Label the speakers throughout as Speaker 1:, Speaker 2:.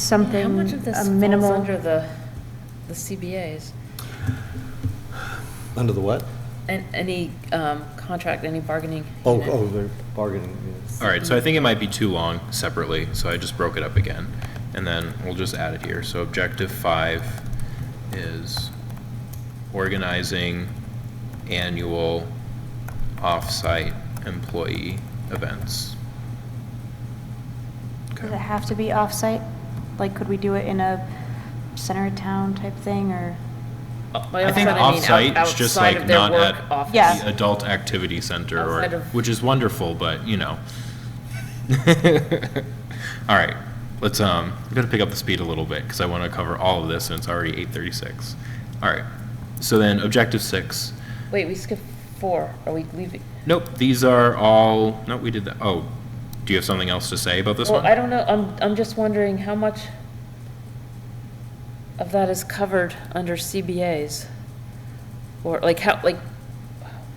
Speaker 1: something,
Speaker 2: How much of this
Speaker 1: a
Speaker 2: falls
Speaker 1: minimal,
Speaker 2: under the, the CBAs?
Speaker 3: Under the what?
Speaker 2: And any um, contract, any bargaining?
Speaker 3: Oh,
Speaker 2: unit?
Speaker 3: oh, they're bargaining units.
Speaker 4: All right, so I think it might be too long separately, so I just broke it up again. And then we'll just add it here. So objective five is organizing annual off-site employee events.
Speaker 1: does it have to be off-site? Like, could we do it in a center of town type thing, or?
Speaker 2: By
Speaker 4: I
Speaker 2: outside,
Speaker 4: think
Speaker 2: I mean
Speaker 4: off-site
Speaker 2: out-
Speaker 4: is just
Speaker 2: outside
Speaker 4: like
Speaker 2: of their
Speaker 4: not
Speaker 2: work
Speaker 4: at
Speaker 2: office.
Speaker 1: Yeah.
Speaker 4: the adult activity center, or,
Speaker 2: Outside of-
Speaker 4: which is wonderful, but, you know. All right, let's, um, I'm gonna pick up the speed a little bit, because I want to cover all of this, and it's already eight thirty-six. All right, so then, objective six.
Speaker 2: Wait, we skipped four. Are we leaving?
Speaker 4: Nope, these are all, no, we did that, oh, do you have something else to say about this
Speaker 2: Well,
Speaker 4: one?
Speaker 2: I don't know. I'm, I'm just wondering how much of that is covered under CBAs? Or like how, like,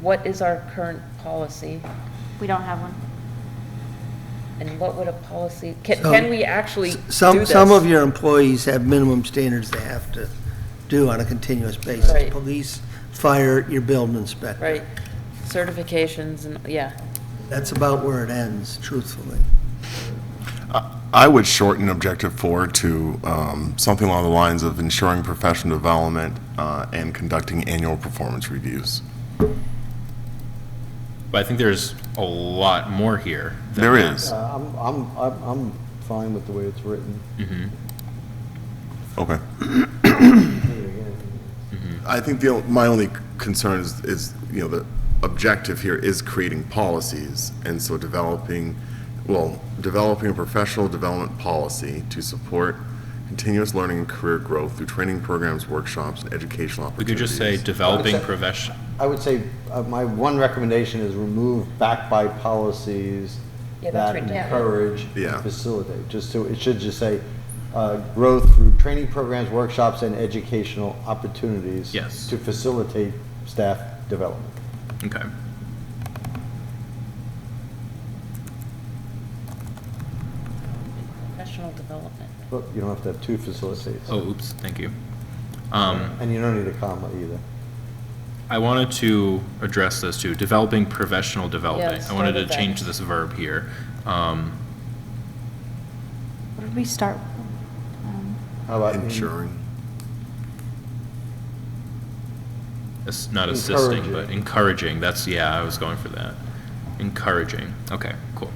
Speaker 2: what is our current policy?
Speaker 1: We don't have one.
Speaker 2: And what would a policy, can,
Speaker 5: So-
Speaker 2: can we actually do this?
Speaker 5: Some, some of your employees have minimum standards they have to do on a continuous basis.
Speaker 2: Right.
Speaker 5: Police, fire, your building inspector.
Speaker 2: Right, certifications and, yeah.
Speaker 5: That's about where it ends, truthfully.
Speaker 6: I would shorten Objective 4 to um, something along the lines of ensuring professional development uh, and conducting annual performance reviews.
Speaker 4: But I think there's a lot more here. than
Speaker 6: There
Speaker 4: that.
Speaker 6: is.
Speaker 3: Uh, I'm, I'm, I'm, I'm fine with the way it's written.
Speaker 6: Okay.
Speaker 3: Again,
Speaker 6: I think the, o- my only concern is, is, you know, the objective here is creating policies, and so developing, well, developing a professional development policy to support continuous learning and career growth through training programs, workshops, and educational
Speaker 4: We could
Speaker 6: opportunities.
Speaker 4: just say developing
Speaker 3: Except-
Speaker 4: profession,
Speaker 3: I would say, uh, my one recommendation is remove back by policies
Speaker 2: Yeah, that's
Speaker 3: that
Speaker 2: right, yeah.
Speaker 3: encourage
Speaker 6: Yeah.
Speaker 3: and facilitate, just so, it should just say, uh, growth through training programs, workshops, and educational opportunities.
Speaker 4: Yes.
Speaker 3: To facilitate staff development.
Speaker 4: okay.
Speaker 2: Professional development.
Speaker 3: Look, you don't have to have two facilitates,
Speaker 4: Oh, oops, thank you. Um,
Speaker 3: and you don't need a comma either.
Speaker 4: I wanted to address this too, developing professional development.
Speaker 2: let's
Speaker 4: I wanted
Speaker 2: start with
Speaker 4: to
Speaker 2: that.
Speaker 4: change this verb here. Um,
Speaker 1: What did we start? um,
Speaker 3: How about? in-
Speaker 6: Ensuring.
Speaker 4: it's not assisting, but
Speaker 3: Encouraging.
Speaker 4: encouraging, that's, yeah, I was going for that. Encouraging, okay, cool.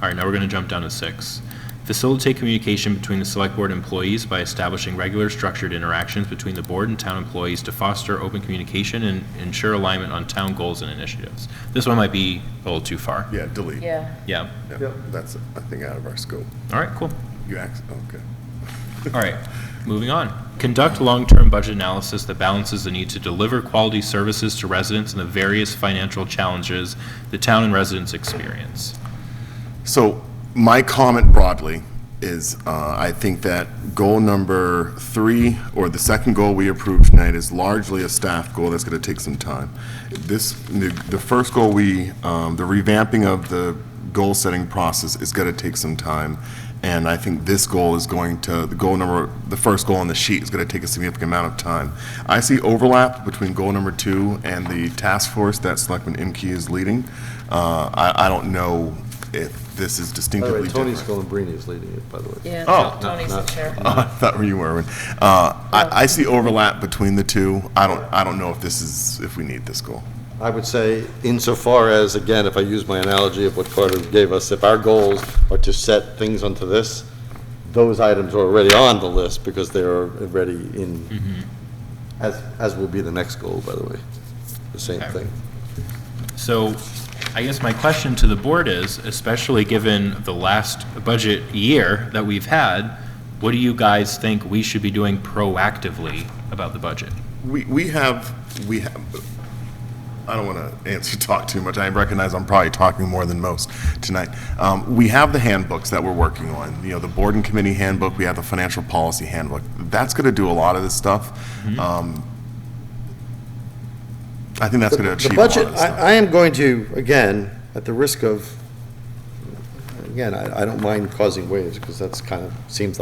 Speaker 4: All right, now we're going to jump down to six. Facilitate communication between the select board employees by establishing regular structured interactions between the board and town employees to foster open communication and ensure alignment on town goals and initiatives. This one might be a little too far.
Speaker 6: Yeah, delete.
Speaker 2: Yeah,
Speaker 4: Yeah,
Speaker 6: Yeah, That's, I think, out of our scope.
Speaker 4: all right, cool.
Speaker 6: You ax okay.
Speaker 4: All right, moving on. Conduct long-term budget analysis that balances the need to deliver quality services to residents and the various financial challenges the town and residents experience.
Speaker 6: So my comment broadly is, uh, I think that goal number three, or the second goal we approved tonight, is largely a staff goal that's going to take some time. This, the the first goal we, um, the revamping of the goal-setting process is going to take some time. And I think this goal is going to, the goal number, the first goal on the sheet is going to take a significant amount of time. I see overlap between goal number two and the task force that Selectman Imke is leading. Uh, I, I don't know if this
Speaker 3: By
Speaker 6: is
Speaker 3: the way,
Speaker 6: distinctively
Speaker 3: Tony
Speaker 6: different.
Speaker 3: Scalabrini is leading it, by the way.
Speaker 2: yeah.
Speaker 6: Oh,
Speaker 2: Tony's the chair.
Speaker 6: I thought you were. Uh, I, I see overlap between the two. I don't, I don't know if this is, if we need this goal.
Speaker 3: I would say insofar as, again, if I use my analogy of what Carter gave us, if our goals are to set things onto this, those items are already on the list because they are already in, as, as will be the next goal, by the way, the same
Speaker 4: Okay.
Speaker 3: thing.
Speaker 4: So I guess my question to the board is, especially given the last budget year that we've had, what do you guys think we should be doing proactively about the budget?
Speaker 6: We, we have, we have, I don't want to answer, talk too much. I recognize I'm probably talking more than most tonight. Um, we have the handbooks that we're working on. You know, the board and committee handbook, we have the financial policy handbook. That's going to do a lot of this stuff. Um, I think that's going to
Speaker 7: The
Speaker 6: achieve a lot
Speaker 7: budget,
Speaker 6: of this stuff.
Speaker 7: I, I am going to, again, at the risk of,
Speaker 3: again, I, I don't mind causing waves, because that's kind of, seems like